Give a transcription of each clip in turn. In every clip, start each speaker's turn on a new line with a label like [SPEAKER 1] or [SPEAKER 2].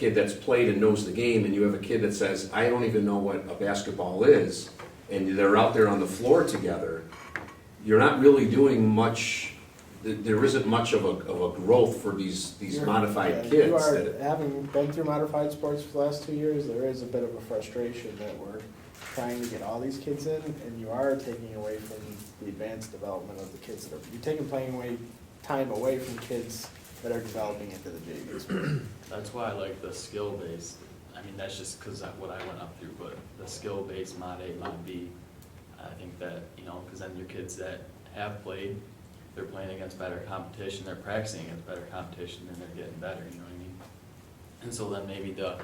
[SPEAKER 1] kid that's played and knows the game, and you have a kid that says, I don't even know what a basketball is, and they're out there on the floor together, you're not really doing much, th- there isn't much of a, of a growth for these, these
[SPEAKER 2] You're- yeah,
[SPEAKER 1] modified
[SPEAKER 2] You
[SPEAKER 1] kids.
[SPEAKER 2] are,
[SPEAKER 1] that-
[SPEAKER 2] having been through modified sports for the last two years, there is a bit of a frustration that we're trying to get all these kids in, and you are taking away from the advanced development of the kids that are, you're taking playing away, time away from kids that are developing into the JV sport.
[SPEAKER 3] That's why I like the skill based, I mean, that's just because of what I went up through, but the skill based mod A, mod B, I think that, you know, because then your kids that have played, they're playing against better competition, they're practicing against better competition, and they're getting better, you know what I mean? And so then maybe the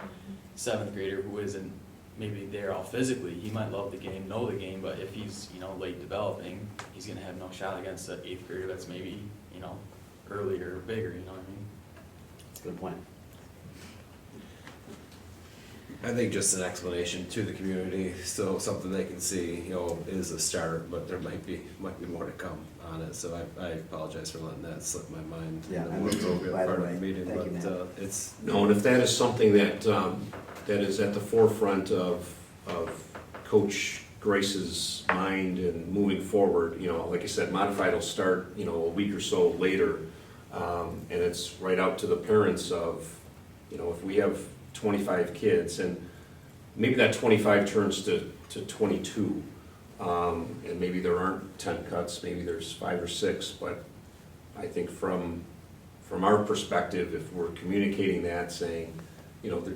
[SPEAKER 3] seventh grader who isn't maybe there all physically, he might love the game, know the game, but if he's, you know, late developing, he's gonna have no shot against the eighth grader that's maybe, you know, earlier, or bigger, you know what I mean?
[SPEAKER 4] Good point.
[SPEAKER 5] I think just an explanation to the community, so something they can see, you know, is a start, but there might be, might be more to come on it, so I, I apologize for letting that slip my mind. in
[SPEAKER 4] Yeah,
[SPEAKER 5] the
[SPEAKER 4] I
[SPEAKER 5] more
[SPEAKER 4] mean,
[SPEAKER 5] appropriate
[SPEAKER 4] by the
[SPEAKER 5] part of
[SPEAKER 4] way,
[SPEAKER 5] meeting,
[SPEAKER 4] thank you,
[SPEAKER 5] but,
[SPEAKER 4] Matt.
[SPEAKER 5] uh, It's,
[SPEAKER 1] No, and if that is something that, um, that is at the forefront of, of Coach Grace's mind and moving forward, you know, like I said, modified will start, you know, a week or so later. Um, and it's right out to the parents of, you know, if we have twenty-five kids and maybe that twenty-five turns to, to twenty-two. Um, and maybe there aren't ten cuts, maybe there's five or six, but I think from, from our perspective, if we're communicating that, saying, you know, the-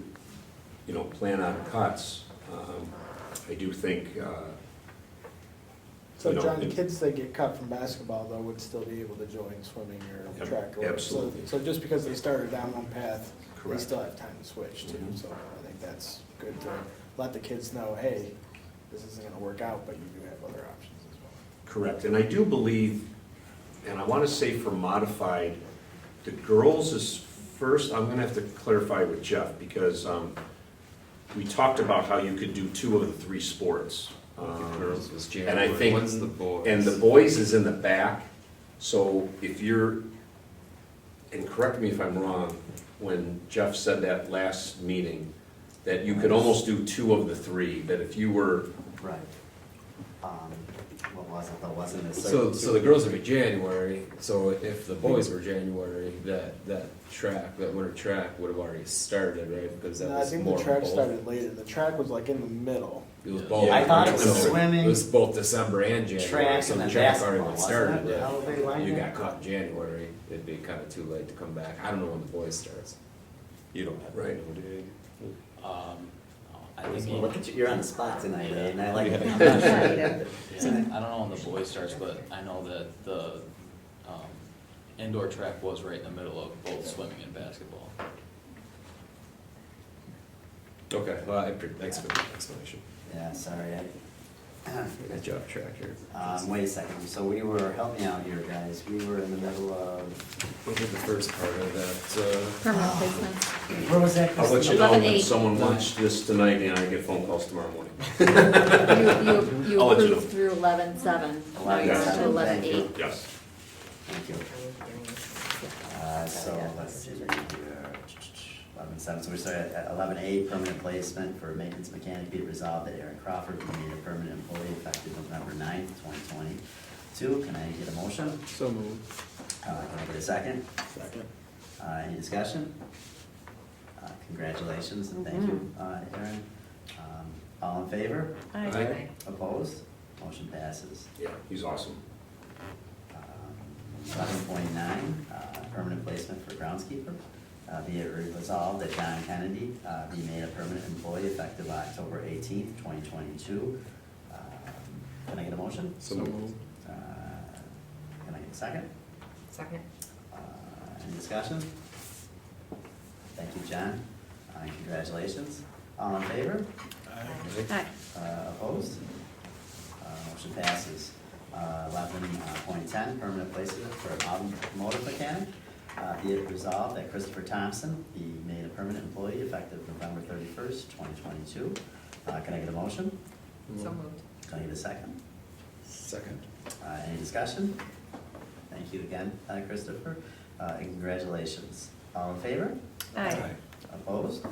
[SPEAKER 1] you know, plan on cuts, um, I do think, uh,
[SPEAKER 2] So
[SPEAKER 1] You know,
[SPEAKER 2] John,
[SPEAKER 1] it-
[SPEAKER 2] kids that get cut from basketball though would still be able to join swimming or
[SPEAKER 1] Ab-
[SPEAKER 2] track. or whatever. So-
[SPEAKER 1] absolutely.
[SPEAKER 2] So just because they started down one path, they
[SPEAKER 1] Correct. Mm-hmm.
[SPEAKER 2] still have time to switch too, so I think that's good to let the kids know, hey, this isn't gonna work out, but you do have other options as well.
[SPEAKER 1] Correct, and I do believe, and I want to say for modified, the girls is first, I'm going to have to clarify with Jeff, because um, we talked about how you could do two of the three sports.
[SPEAKER 5] the
[SPEAKER 1] Um,
[SPEAKER 5] girls was
[SPEAKER 1] and I
[SPEAKER 5] January,
[SPEAKER 1] think-
[SPEAKER 5] when's the boys?
[SPEAKER 1] And the boys is in the back, so if you're, and correct me if I'm wrong, when Jeff said that last meeting, that you could almost do two of the three, that if you were,
[SPEAKER 4] Right. Um, what was it, that wasn't a
[SPEAKER 5] So,
[SPEAKER 4] certain.
[SPEAKER 5] so the girls would be January, so if the boys were January, that, that track, that winter track would have already started, right? Because that
[SPEAKER 2] No, I
[SPEAKER 5] was
[SPEAKER 2] think
[SPEAKER 5] more
[SPEAKER 2] the
[SPEAKER 5] of
[SPEAKER 2] track
[SPEAKER 5] both.
[SPEAKER 2] started later, the track was like in the middle.
[SPEAKER 5] It was both.
[SPEAKER 4] I thought it was
[SPEAKER 5] So
[SPEAKER 4] swimming,
[SPEAKER 5] It was both December and January,
[SPEAKER 4] Track
[SPEAKER 5] so
[SPEAKER 4] and
[SPEAKER 5] the
[SPEAKER 4] then
[SPEAKER 5] track already
[SPEAKER 4] basketball,
[SPEAKER 5] went
[SPEAKER 4] wasn't
[SPEAKER 5] started,
[SPEAKER 4] it?
[SPEAKER 5] yeah.
[SPEAKER 4] Elevated line
[SPEAKER 5] You
[SPEAKER 4] there?
[SPEAKER 5] got caught in January, it'd be kinda too late to come back, I don't know when the boys starts. You don't have.
[SPEAKER 1] Right.
[SPEAKER 3] Um, I think, he-
[SPEAKER 4] Look at you, you're on the spot tonight, eh, and I like it.
[SPEAKER 3] yeah, I don't know when the boys starts, but I know that the, um, indoor track was right in the middle of both swimming and basketball.
[SPEAKER 5] Okay, well, I, appre- thanks for the explanation.
[SPEAKER 4] Yeah, sorry, I,
[SPEAKER 5] Good job, Tractor.
[SPEAKER 4] um, wait a second, so we were, help me out here, guys, we were in the middle of,
[SPEAKER 5] What was the first part of that, uh,
[SPEAKER 6] Permanent placement.
[SPEAKER 4] where was that?
[SPEAKER 1] I'll let you
[SPEAKER 4] Christina?
[SPEAKER 1] know
[SPEAKER 6] Eleven
[SPEAKER 1] when
[SPEAKER 6] eight.
[SPEAKER 1] someone watched this tonight and I get phone calls tomorrow morning.
[SPEAKER 6] You, you,
[SPEAKER 1] I'll
[SPEAKER 6] you
[SPEAKER 1] let you know.
[SPEAKER 6] approved through eleven seven, now you're on to
[SPEAKER 4] 11-7,
[SPEAKER 6] eleven
[SPEAKER 4] thank you.
[SPEAKER 6] eight.
[SPEAKER 1] Yes.
[SPEAKER 4] Thank you. Uh, so, let's see, we're here, eleven seven, so we started at eleven A, permanent placement for maintenance mechanic be it resolved that Aaron Crawford be made a permanent employee effective November ninth, twenty twenty. Two, can I get a motion?
[SPEAKER 2] So moved.
[SPEAKER 4] Uh, can I get a second?
[SPEAKER 2] Second.
[SPEAKER 4] Uh, any discussion? Uh, congratulations and thank you, uh, Aaron. Um, all in favor?
[SPEAKER 1] Aye.
[SPEAKER 4] Opposed? Motion passes.
[SPEAKER 1] Yeah, he's awesome.
[SPEAKER 4] Um, Eleven point nine, permanent placement for groundskeeper. Uh, Be it resolved that John Kennedy uh, be made a permanent employee effective October eighteenth, twenty twenty-two. Um, Can I get a motion?
[SPEAKER 5] So moved.
[SPEAKER 4] Uh, Can I get a second?
[SPEAKER 7] Second.
[SPEAKER 4] Uh, Any discussion? Thank you, John. Uh, Congratulations. All in favor?
[SPEAKER 5] uh?
[SPEAKER 6] Aye.
[SPEAKER 4] Uh, Opposed? Uh, Motion passes. Uh, Eleven point ten, permanent placement for an automotive mechanic. Uh, Be it resolved that Christopher Thompson be made a permanent employee effective November thirty-first, twenty twenty-two. Uh, Can I get a motion?
[SPEAKER 7] So moved.
[SPEAKER 4] Can I get a second?
[SPEAKER 5] Second.
[SPEAKER 4] Uh, Any discussion? Thank you again, uh, Christopher. Uh, and Congratulations. All in favor?
[SPEAKER 6] Aye.
[SPEAKER 4] Uh, Opposed?